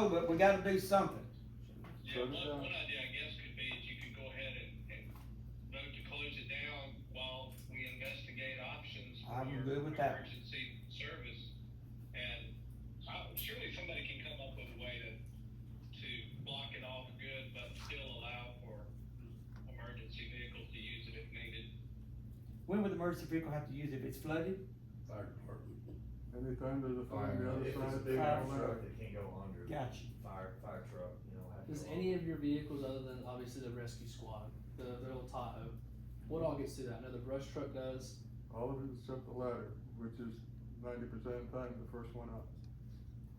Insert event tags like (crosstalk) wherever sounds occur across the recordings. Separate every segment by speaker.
Speaker 1: know, Oh, but we gotta do something.
Speaker 2: Yeah, one, one idea I guess could be is you could go ahead and, and vote to close it down while we investigate options for
Speaker 1: I'm good with that.
Speaker 2: emergency service. And I- surely somebody can come up with a way to, to block it off good, but still allow for emergency vehicles to use it if needed.
Speaker 1: When would the emergency vehicle have to use it? If it's flooded?
Speaker 3: Fire department.
Speaker 4: Anytime there's a fire on the other
Speaker 5: If it's a
Speaker 4: side.
Speaker 5: big
Speaker 1: Fire
Speaker 5: enough
Speaker 4: truck.
Speaker 5: truck that can't go under,
Speaker 1: Gotcha.
Speaker 5: fire, fire truck, you know, have to.
Speaker 6: Does
Speaker 5: go
Speaker 6: any
Speaker 5: under.
Speaker 6: of your vehicles, other than obviously the rescue squad, the, the little Tahoe, what all gets through that? I know the brush truck does.
Speaker 4: All of it except the ladder, which is ninety percent of the time the first one up.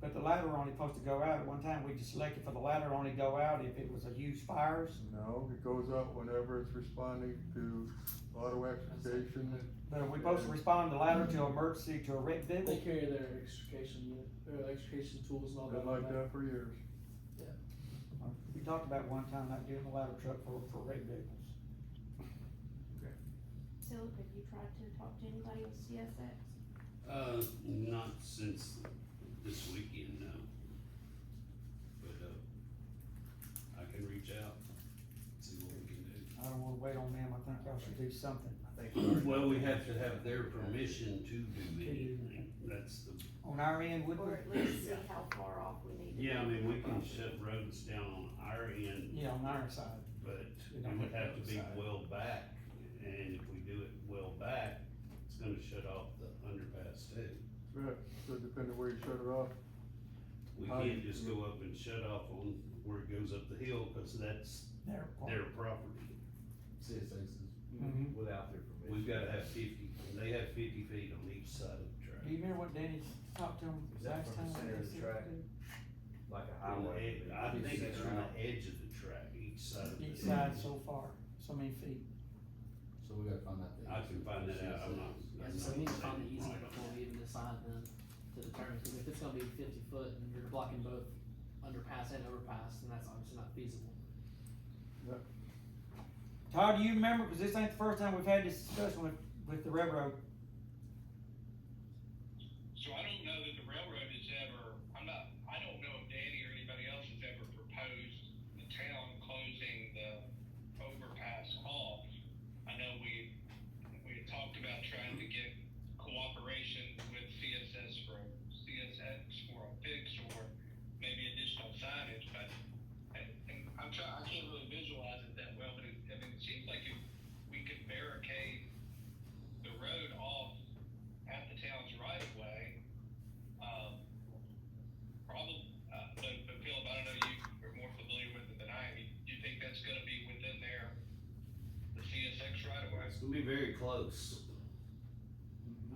Speaker 1: But the ladder only supposed to go out at one time. We just selected for the ladder only go out if it was a huge fires.
Speaker 4: No, it goes out whenever it's responding to auto extrication.
Speaker 1: But are we supposed to respond to ladder to emergency to a wrecked
Speaker 6: They
Speaker 1: vehicle?
Speaker 6: carry their extrication unit, their extrication tools and all that.
Speaker 4: Been like that for years.
Speaker 1: We talked about one time not doing the ladder truck for, for wrecked vehicles.
Speaker 7: Philip, have you tried to talk to anybody with CSX?
Speaker 3: Uh, not since this weekend, no. But, uh, I can reach out, see what we can do.
Speaker 1: I don't wanna wait on them. I think y'all should do something
Speaker 5: I think we already-
Speaker 3: Well, we have to have their permission to do anything, that's the,
Speaker 1: on our end, would we?
Speaker 7: Or at
Speaker 3: (coughs)
Speaker 7: least see how far off we need to be?
Speaker 3: yeah, I mean, we can shut roads down on our end,
Speaker 1: Yeah, on our side.
Speaker 3: but it would have to be well back. And if we do it well back, it's gonna shut off the underpass too.
Speaker 4: Right, so depending where you shut it off,
Speaker 3: We
Speaker 4: How
Speaker 3: can't
Speaker 4: you-
Speaker 3: just go up and shut off on where it goes up the hill, cause that's
Speaker 1: Their part.
Speaker 3: their property.
Speaker 5: citizens
Speaker 3: Mm-hmm.
Speaker 1: Mhm.
Speaker 5: without their permission.
Speaker 3: We've gotta have fifty, and they have fifty feet on each side of the track.
Speaker 1: Do you remember what Danny talked to him
Speaker 5: Is that
Speaker 1: last
Speaker 5: from
Speaker 1: time?
Speaker 5: the center of the track? Like a
Speaker 3: On the
Speaker 5: highway.
Speaker 3: ed- I think it's from
Speaker 5: Right.
Speaker 3: the edge of the track, each side
Speaker 5: Uh,
Speaker 3: of the.
Speaker 1: Each side so far, so many feet.
Speaker 8: So we gotta find out.
Speaker 3: I can find that out, I'm not.
Speaker 6: Yeah,
Speaker 3: I'm
Speaker 6: so
Speaker 3: not
Speaker 6: we need to find the
Speaker 3: saying
Speaker 6: easement
Speaker 3: right.
Speaker 6: before we even decide then to determine, because if it's gonna be fifty foot and you're blocking both underpass and overpass, then that's obviously not feasible.
Speaker 1: Todd, do you remember, cause this ain't the first time we've had this discussion with, with the railroad.
Speaker 2: So I don't know that the railroad has ever, I'm not, I don't know if Danny or anybody else has ever proposed the town closing the overpass off. I know we, we had talked about trying to get cooperation with CSS for, CSX for a fix or maybe additional signage, but and, and I'm trying, I can't really visualize it that well, but it, I mean, it seems like if we could barricade the road off at the town's right of way. Um, probably, uh, but, but Philip, I don't know, you are more familiar with it than I am. Do you think that's gonna be within their, the CSX right of way?
Speaker 3: It's gonna be very close.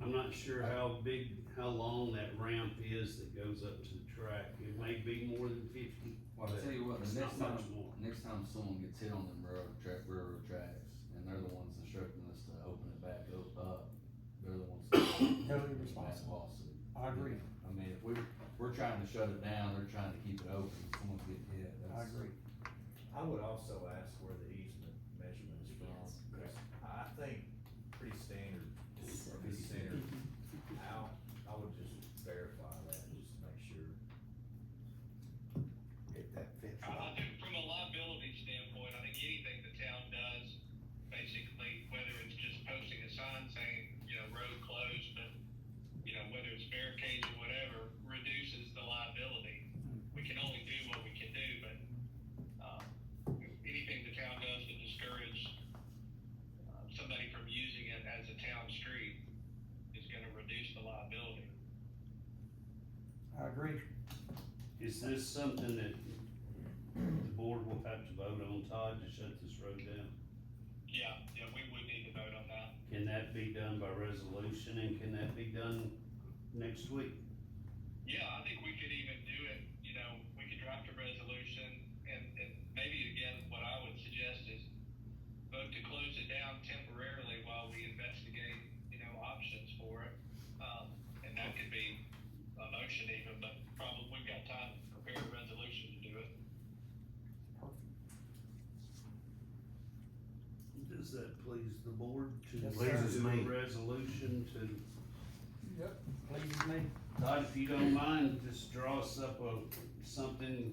Speaker 3: I'm not sure how big, how long that ramp is that goes up to the track, it may be more than fifty,
Speaker 8: Well, I tell you what,
Speaker 3: it's
Speaker 8: the next
Speaker 3: not
Speaker 8: time,
Speaker 3: much more.
Speaker 8: next time someone gets hit on them railroad track, railroad tracks, and they're the ones instructing us to open it back o- up, uh, they're the ones.
Speaker 1: Totally
Speaker 8: Totally
Speaker 1: responsible.
Speaker 8: Lawsuit.
Speaker 1: I agree,
Speaker 8: I mean, if we, we're trying to shut it down, they're trying to keep it open, someone's getting hit,
Speaker 1: I
Speaker 8: that's.
Speaker 1: agree.
Speaker 5: I would also ask where the easement measurement is from,
Speaker 6: Yes.
Speaker 5: 'cause I think pretty standard,
Speaker 6: So-
Speaker 5: or pretty
Speaker 6: (laughs)
Speaker 5: standard out, I would just verify that, just to make sure. If that fits.
Speaker 2: I I think from a liability standpoint, I think anything the town does, basically, whether it's just posting a sign saying, you know, road closed, but, you know, whether it's barricades or whatever, reduces the liability. We can only do what we can do, but, um, anything the town does to discourage, uh, somebody from using it as a town street is gonna reduce the liability.
Speaker 1: I agree.
Speaker 3: Is this something that the board will have to vote on, Todd, to shut this road down?
Speaker 2: Yeah, yeah, we would need to vote on that.
Speaker 3: Can that be done by resolution and can that be done next week?
Speaker 2: Yeah, I think we could even do it, you know, we could draft a resolution and, and maybe again, what I would suggest is vote to close it down temporarily while we investigate, you know, options for it. Um, and that could be a motion even, but probably we've got time to prepare a resolution to do it.
Speaker 3: Does that please the board to
Speaker 1: Yes,
Speaker 3: raise
Speaker 1: sir.
Speaker 3: a resolution to,
Speaker 4: Yep.
Speaker 1: Please, me.
Speaker 3: Todd, if you don't mind, just draw us up a something